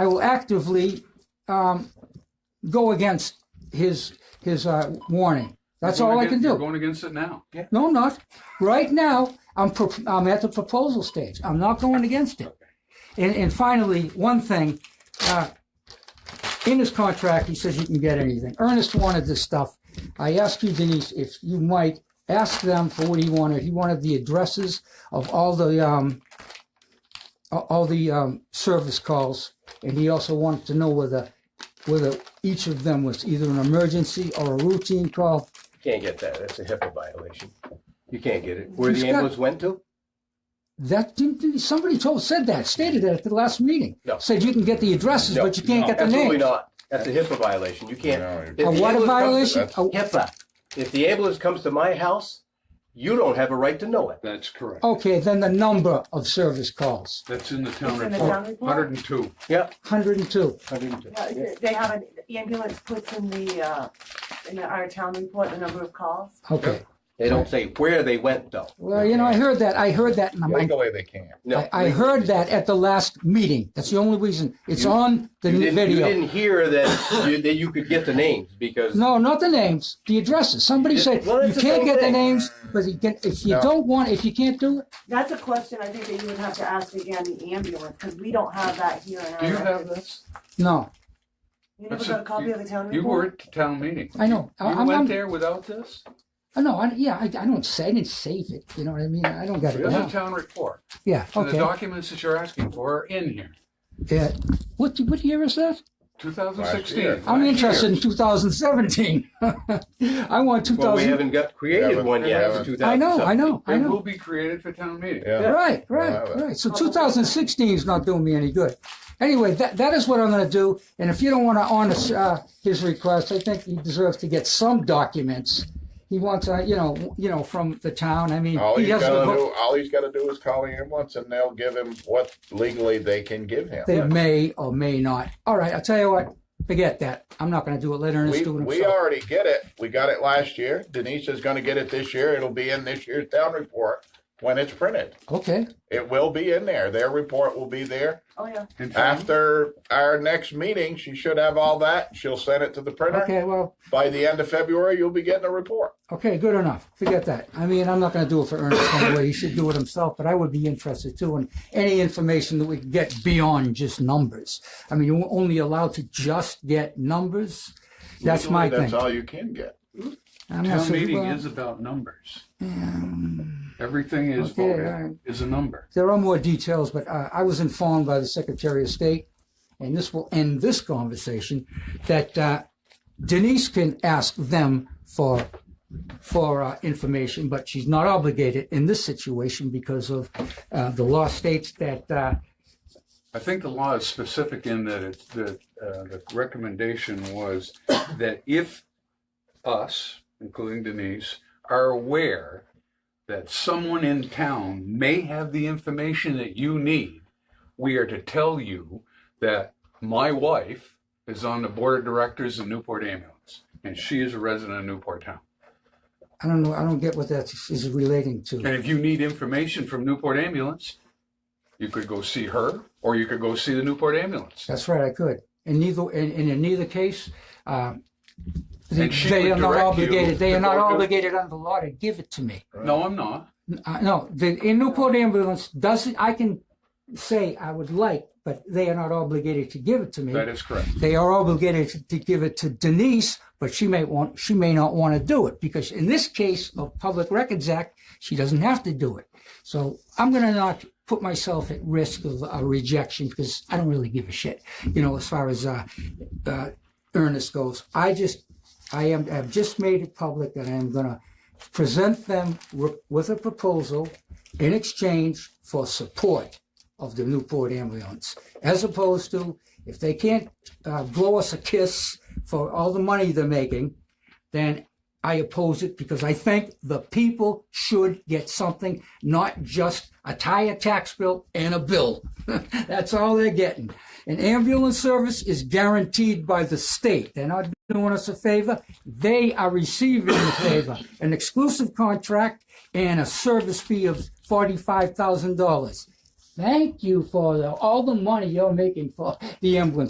I will actively um, go against his his uh, warning. That's all I can You're do. going against it now. No, I'm not. Right now, I'm, pro- I'm at the proposal stage. I'm not going against it. And, and finally, one thing, uh, in his contract, he says you can get anything. Ernest wanted this stuff. I asked you, Denise, if you might ask them for what he wanted. He wanted the addresses of all the, um, a- all the, um, service calls. And he also wanted to know whether, whether each of them was either an emergency or a routine call. Can't get that. That's a HIPAA violation. You can't get it. Where He's the got- ambulance went to? That didn't, didn't- somebody told, said that, stated that at the last meeting. No. Said you can get the addresses, No, but you can't no, get the Absolutely names. not. That's a HIPAA violation. You can't. No, If you- the A what ambulance comes violation? to- A- HIPAA. If the ambulance comes to my house, you don't have a right to know it. That's correct. Okay, then the number of service calls, That's in the town It's in the town report, report? hundred and two. Yeah. hundred and two. Yeah. They have an the ambulance puts in the, uh, in the- our town report, the number of calls. Okay. They don't say where they went though. Well, you know, I heard that, I heard that, and I'm like, Legally, they can't. No. I, I heard that at the last meeting. That's the only reason. It's on the You didn't, you video. didn't hear that you, that you could get the names because No, not the names, the addresses. Somebody said, Well, you it's the can't same get the thing. names, but you can, if you No. don't want, if you can't do it, That's a question I think that you would have to ask again, the ambulance, because we don't have that here in our. Do you have records. this? no, You never That's got a- a copy of the town You were report? at the town meeting. I know. I- You I'm- I'm- went there without this? Uh, no, I, yeah, I, I don't say, I didn't save it. You know what I mean? I don't got it There's a now. town report. Yeah, So the okay. documents that you're asking for are in here. Yeah. What what year is that? Two thousand year. sixteen. I'm Last interested year. in 2017. I want well, we 2000. haven't got created Haven't- one yet. haven't. for 2000 I know, I something. know, I It will know. be created for town meeting. Yeah. Right, right, We'll have it. right. So 2016 is not doing me any good. Anyway, that that is what I'm going to do. And if you don't want to honor uh, his request, I think he deserves to get some documents. He wants, uh, you know, you know, from the town. I mean, All he he's has to gotta vote. do, all he's gotta do is call the ambulance and they'll give him what legally they can give him. They may or may not. All right, I'll tell you what. Forget that. I'm not going to do it. Let Ernest We, do it we himself. already get it. We got it last year. Denise is gonna get it this year. It'll be in this year's town report when it's printed. Okay. It will be in there. Their report will be there. Oh, yeah. In Mm-hmm. fact, After our next meeting, she should have all that. She'll send it to the printer. Okay. Well, By the end of February, you'll be getting a report. Okay, good enough. Forget that. I mean, I'm not going to do it for Ernest anyway. He should do it himself, but I would be interested too in any information that we can get beyond just numbers. I mean, you're only allowed to just get numbers. That's Legally, my That's thing. all you can get. I'm not town sure- meeting well, is about numbers. Everything is Okay, voted, alright. is a number. There are more details, but uh, I was informed by the Secretary of State, and this will end this conversation, that uh, Denise can ask them for for uh, information, but she's not obligated in this situation because of uh, the law states that uh, I think the law is specific in that it, that, uh, the recommendation was that if us, including Denise, are aware that someone in town may have the information that you need, we are to tell you that my wife is on the board of directors of Newport Ambulance, and she is a resident of Newport Town. I don't know, I don't get what that is relating to. And if you need information from Newport Ambulance, you could go see her, or you could go see the Newport Ambulance. That's right, I could. In neither, and, and in neither case, uh, they, And she they would are not direct you obligated. They to are not go to- obligated under law to give it to me. No, I'm not. Uh, no, the in Newport ambulance doesn't. I can say I would like, but they are not obligated to give it to me. That is correct. they are obligated to, to give it to Denise, but she may want she may not want to do it because in this case of Public Records Act, she doesn't have to do it. So I'm going to not put myself at risk of a rejection because I don't really give a shit, you know, as far as uh, uh, Ernest goes. I just I am have just made it public that I am going to present them wi- with a proposal in exchange for support of the Newport ambulance, as opposed to if they can't uh, blow us a kiss for all the money they're making, then I oppose it because I think the people should get something, not just a tire tax bill and a bill. That's all they're getting. An ambulance service is guaranteed by the state. They're not doing us a favor. They are receiving the favor, an exclusive contract and a service fee of $45,000. thank you for the, all the money you're making for the ambulance